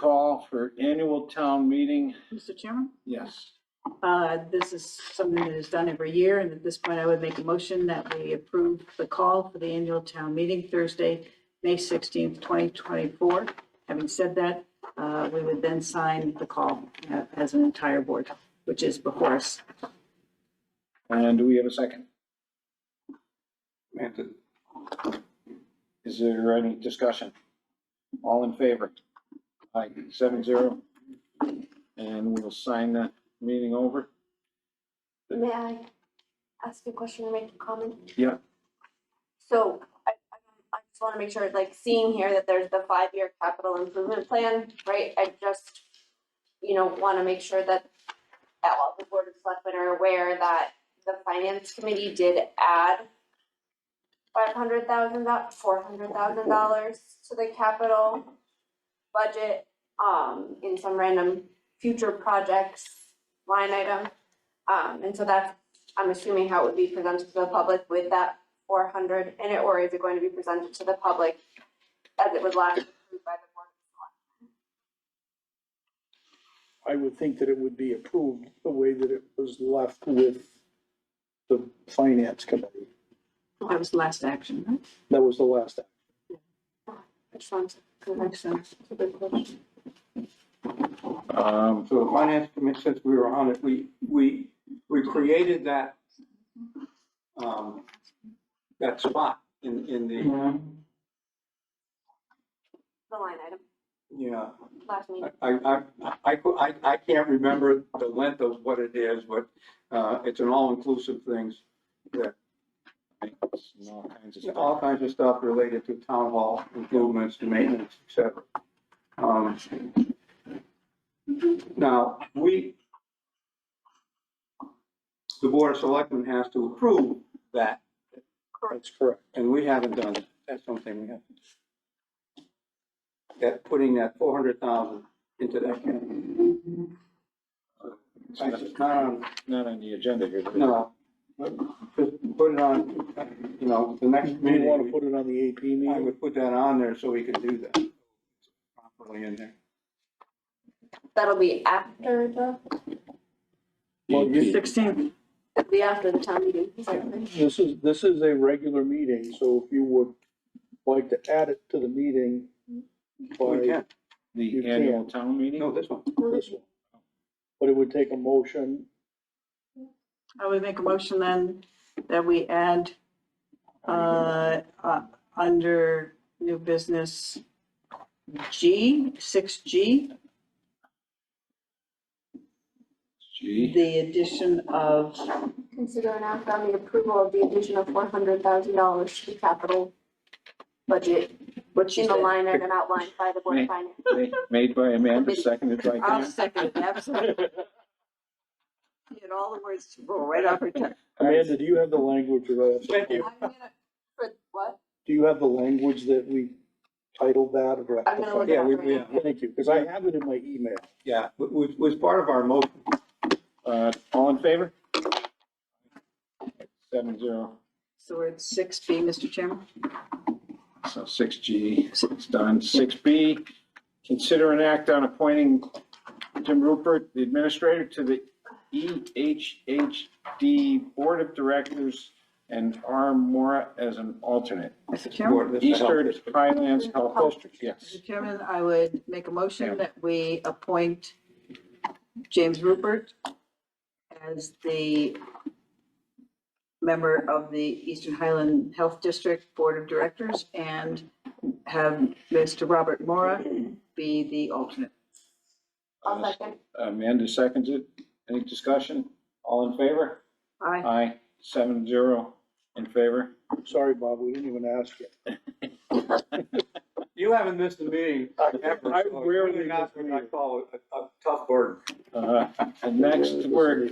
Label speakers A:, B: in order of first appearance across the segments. A: call for annual town meeting.
B: Mr. Chairman,
A: Yes.
B: uh, this is something that is done every year, and at this point, I would make a motion that we approve the call for the annual town meeting Thursday, May sixteenth, twenty twenty-four. Having said that, uh, we would then sign the call uh, as an entire board, which is before us.
A: And do we have a second?
C: Amanda,
A: Is there any discussion? All in favor? Aye, seven zero. And we'll sign that meeting over.
D: May I ask a question or make a comment?
A: Yeah.
D: So I, I I just want to make sure, like seeing here that there's the five-year capital improvement plan, right? I just, you know, want to make sure that that all the board of selectmen are aware that the finance committee did add five hundred thousand, four hundred thousand dollars to the capital budget, um, in some random future projects line item. Um, and so that's, I'm assuming how it would be presented to the public with that four hundred in it, or is it going to be presented to the public as it was last approved by the board?
E: I would think that it would be approved the way that it was left with the finance committee.
B: That was the last action, right?
E: That was the last. act.
D: Which one's,
B: Makes sense.
D: a good question.
A: Um,
C: So the finance committee, since we were on it, we, we, we created that, um, that spot in, in the,
D: The line item,
C: yeah.
D: last meeting.
C: I, I, I, I, I can't remember the length of what it is, but, uh, it's an all-inclusive things.
A: it's all kinds of
C: All
A: stuff.
C: kinds of stuff related to town hall improvements, to maintenance, et cetera. Um, Now, we, the board of selectmen has to approve that
E: That's correct.
C: And we haven't done, it. that's something we have. That, putting that four hundred thousand into that account. I just, not on,
A: Not on the agenda here. but-
C: no, but just put it on, you know, the next
E: We
C: meeting.
E: want to put it on the AP
C: I
E: meeting.
C: would put that on there so we can do that. Properly in there.
D: That'll be after the,
E: Well, you-
B: Sixteenth,
D: it'll be after the town meeting, sorry.
E: This is, this is a regular meeting, so if you would like to add it to the meeting
C: We
E: by
C: can,
A: The
E: You
A: annual town
C: no,
A: meeting?
C: this one.
E: this one. But it would take a motion.
B: I would make a motion then that we add, uh, uh, under new business G, six G,
A: Gee,
B: the addition of,
D: Consider and act on the approval of the addition of four hundred thousand dollars to the capital budget
B: what she
D: in the
B: said.
D: line item outlined by the board of finance.
A: ma- made by Amanda, seconded by
B: I'll
A: Dan.
B: second, absolutely. She had all the words roll right off her tongue.
E: Amanda, do you have the language of that?
C: Thank you.
D: I'm gonna, for what?
E: Do you have the language that we titled that or?
D: I'm gonna look it
C: Yeah,
D: up
C: we,
D: right
C: we,
D: now.
E: Thank you, because I have it in my email.
C: yeah, wa- was, was part of our motion.
A: Uh, all in favor? Seven zero,
B: So we're at six B, Mr. Chairman?
A: so six G, it's done. Six B, consider an act on appointing Jim Rupert, the administrator, to the E EHHD Board of Directors and R. Mora as an alternate.
B: Mr. Chairman?
C: Board, this is help.
A: Eastern Highlands Health District, yes.
B: Mr. Chairman, I would make a motion that we appoint James Rupert as the member of the Eastern Highland Health District Board of Directors and have Mr. Robert Mora be the alternate.
D: I'll second.
A: Amanda seconds it. Any discussion? All in favor?
B: Aye.
A: Aye, seven zero in favor.
E: Sorry, Bob, we didn't even ask you.
C: You haven't missed a meeting ever.
E: I
C: so it's
E: rarely
C: really not
E: miss a
C: what I
E: meeting.
C: call a, a tough burden.
A: Uh, And next, we're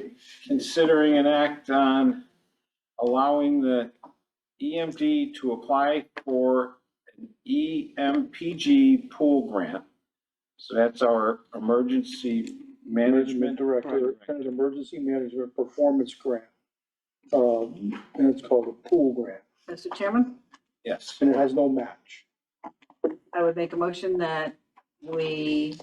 A: considering an act on allowing the EMD to apply for an E EMPG pool grant. So that's our emergency
E: Management
A: management.
E: Director, kind of emergency management performance grant. Um, and it's called a pool grant,
B: Mr. Chairman?
A: Yes,
E: and it has no match.
B: I would make a motion that we